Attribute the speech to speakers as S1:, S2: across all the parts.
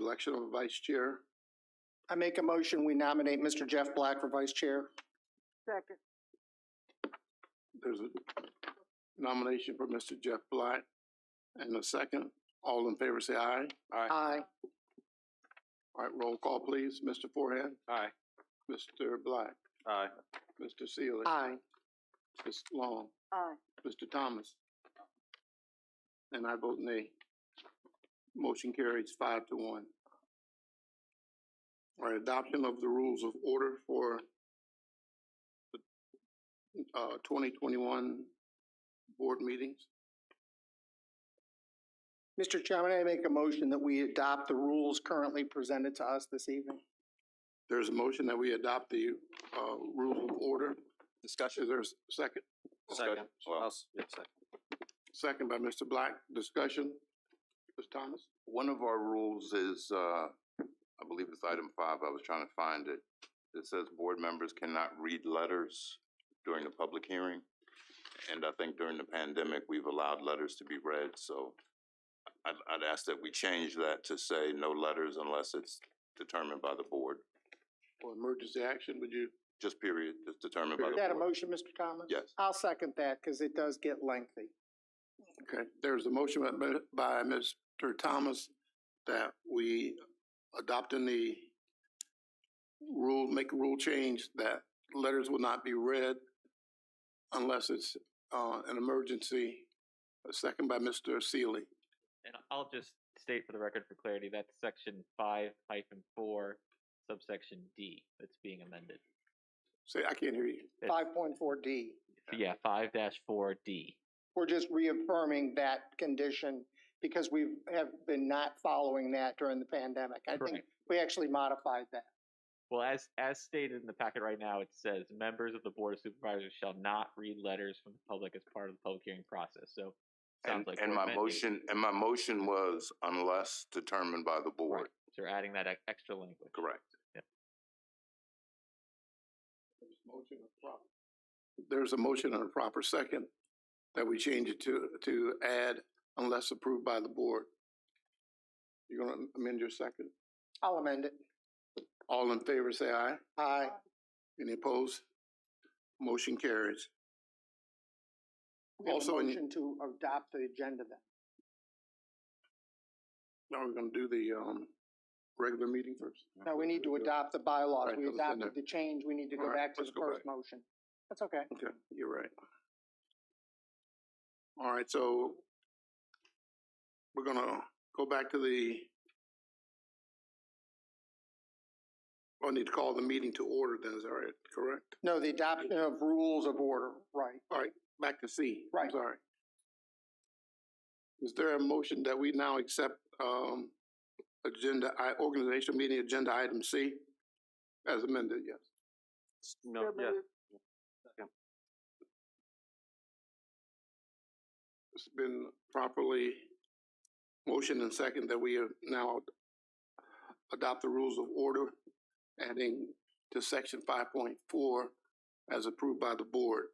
S1: election of a vice chair.
S2: I make a motion, we nominate Mr. Jeff Black for vice chair.
S3: Second.
S1: There's a nomination for Mr. Jeff Black and a second. All in favor, say aye.
S4: Aye.
S2: Aye.
S1: All right, roll call, please. Mr. Forehand,
S4: Aye.
S1: Mr. Black,
S4: Aye.
S1: Mr. Sealy,
S2: Aye.
S1: Ms. Long,
S3: Aye.
S1: Mr. Thomas. And I vote nay. Motion carries five to one. All right, adoption of the rules of order for the, uh, twenty twenty-one board meetings.
S2: Mr. Chairman, I make a motion that we adopt the rules currently presented to us this evening.
S1: There's a motion that we adopt the, uh, rules of order. Is
S4: Discussion?
S1: there a second?
S4: Second. Well, yeah, second.
S1: Second by Mr. Black. Discussion? Ms. Thomas?
S5: One of our rules is, uh, I believe it's item five, I was trying to find it. It says board members cannot read letters during the public hearing. And I think during the pandemic, we've allowed letters to be read, so I'd, I'd ask that we change that to say no letters unless it's determined by the board,
S1: Or emergency action, would you?
S5: just period, just determined by
S2: Is
S5: the
S2: that a
S5: board.
S2: motion, Mr. Thomas?
S5: Yes.
S2: I'll second that because it does get lengthy.
S1: Okay, there's a motion by- by Mr. Thomas that we adopting the rule, make a rule change that letters will not be read unless it's, uh, an emergency. A second by Mr. Sealy.
S6: And I'll just state for the record for clarity, that's section five hyphen four subsection D that's being amended.
S1: Say, I can't hear you.
S6: It's-
S2: Five point four D.
S6: Yeah, five dash four D.
S2: We're just reaffirming that condition because we have been not following that during the pandemic. I think
S6: Correct.
S2: we actually modified that.
S6: Well, as, as stated in the packet right now, it says members of the board of supervisors shall not read letters from the public as part of the public hearing process. So sounds
S5: And,
S6: like
S5: and
S6: we're
S5: my
S6: amending-
S5: motion, and my motion was unless determined by the board,
S6: Right. So we're adding that ex- extra language.
S5: correct?
S1: Motion and proper. There's a motion and a proper second that we change it to, to add unless approved by the board. You're gonna amend your second?
S2: I'll amend it.
S1: All in favor, say aye.
S2: Aye.
S1: Any opposed? Motion carries.
S2: We have a
S1: Also, in-
S2: motion to adopt the agenda then.
S1: Now we're gonna do the, um, regular meeting first.
S2: No, we need to adopt the bylaws.
S1: Right,
S2: We
S1: that was in
S2: adopted the change. We need to go
S1: All right,
S2: back to
S1: let's
S2: the
S1: go
S2: first motion. That's okay.
S1: Okay, you're right. All right, so we're gonna go back to the I need to call the meeting to order then, is that right, correct?
S2: No, the adoption of rules of order, right.
S1: Back to C. I'm
S2: Right.
S1: Sorry. Is there a motion that we now accept, um, agenda, I, organizational meeting agenda item C? As amended, yes.
S4: No,
S3: So
S4: yeah,
S3: moved.
S1: It's been properly motioned and second that we have now adopt the rules of order, adding to section five point four as approved by the board.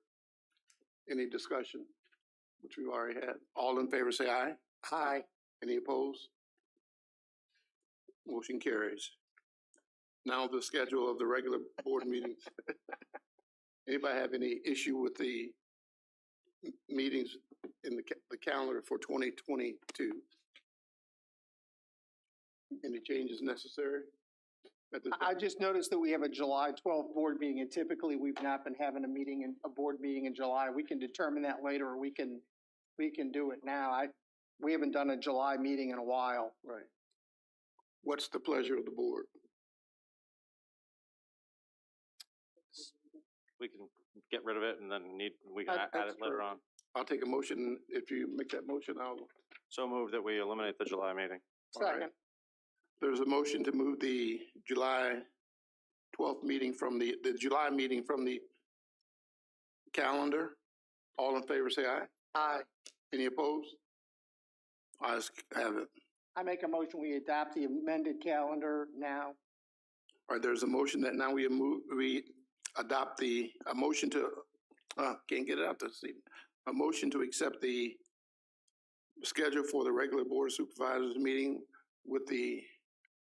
S1: Any discussion, which we've already had? All in favor, say aye.
S2: Aye.
S1: Any opposed? Motion carries. Now the schedule of the regular board meetings. Anybody have any issue with the m- meetings in the, ca- the calendar for twenty twenty-two? Any changes necessary? at this
S2: I I
S1: time?
S2: just noticed that we have a July twelfth board meeting and typically we've not been having a meeting in, a board meeting in July. We can determine that later or we can, we can do it now. I, we haven't done a July meeting in a while.
S1: Right. What's the pleasure of the board?
S4: we can get rid of it and then need, we can
S2: Uh,
S1: That-
S4: a- add
S1: that's
S4: it later
S1: true.
S4: on.
S1: I'll take a motion. If you make that motion, I'll
S4: So moved that we eliminate the July meeting.
S1: All right.
S2: Second.
S1: There's a motion to move the July twelfth meeting from the, the July meeting from the calendar. All in favor, say aye.
S2: Aye.
S1: Any opposed? Ayes have it.
S2: I make a motion, we adopt the amended calendar now.
S1: All right, there's a motion that now we move, we adopt the, a motion to, uh, can't get it out this evening. A motion to accept the schedule for the regular board of supervisors meeting with the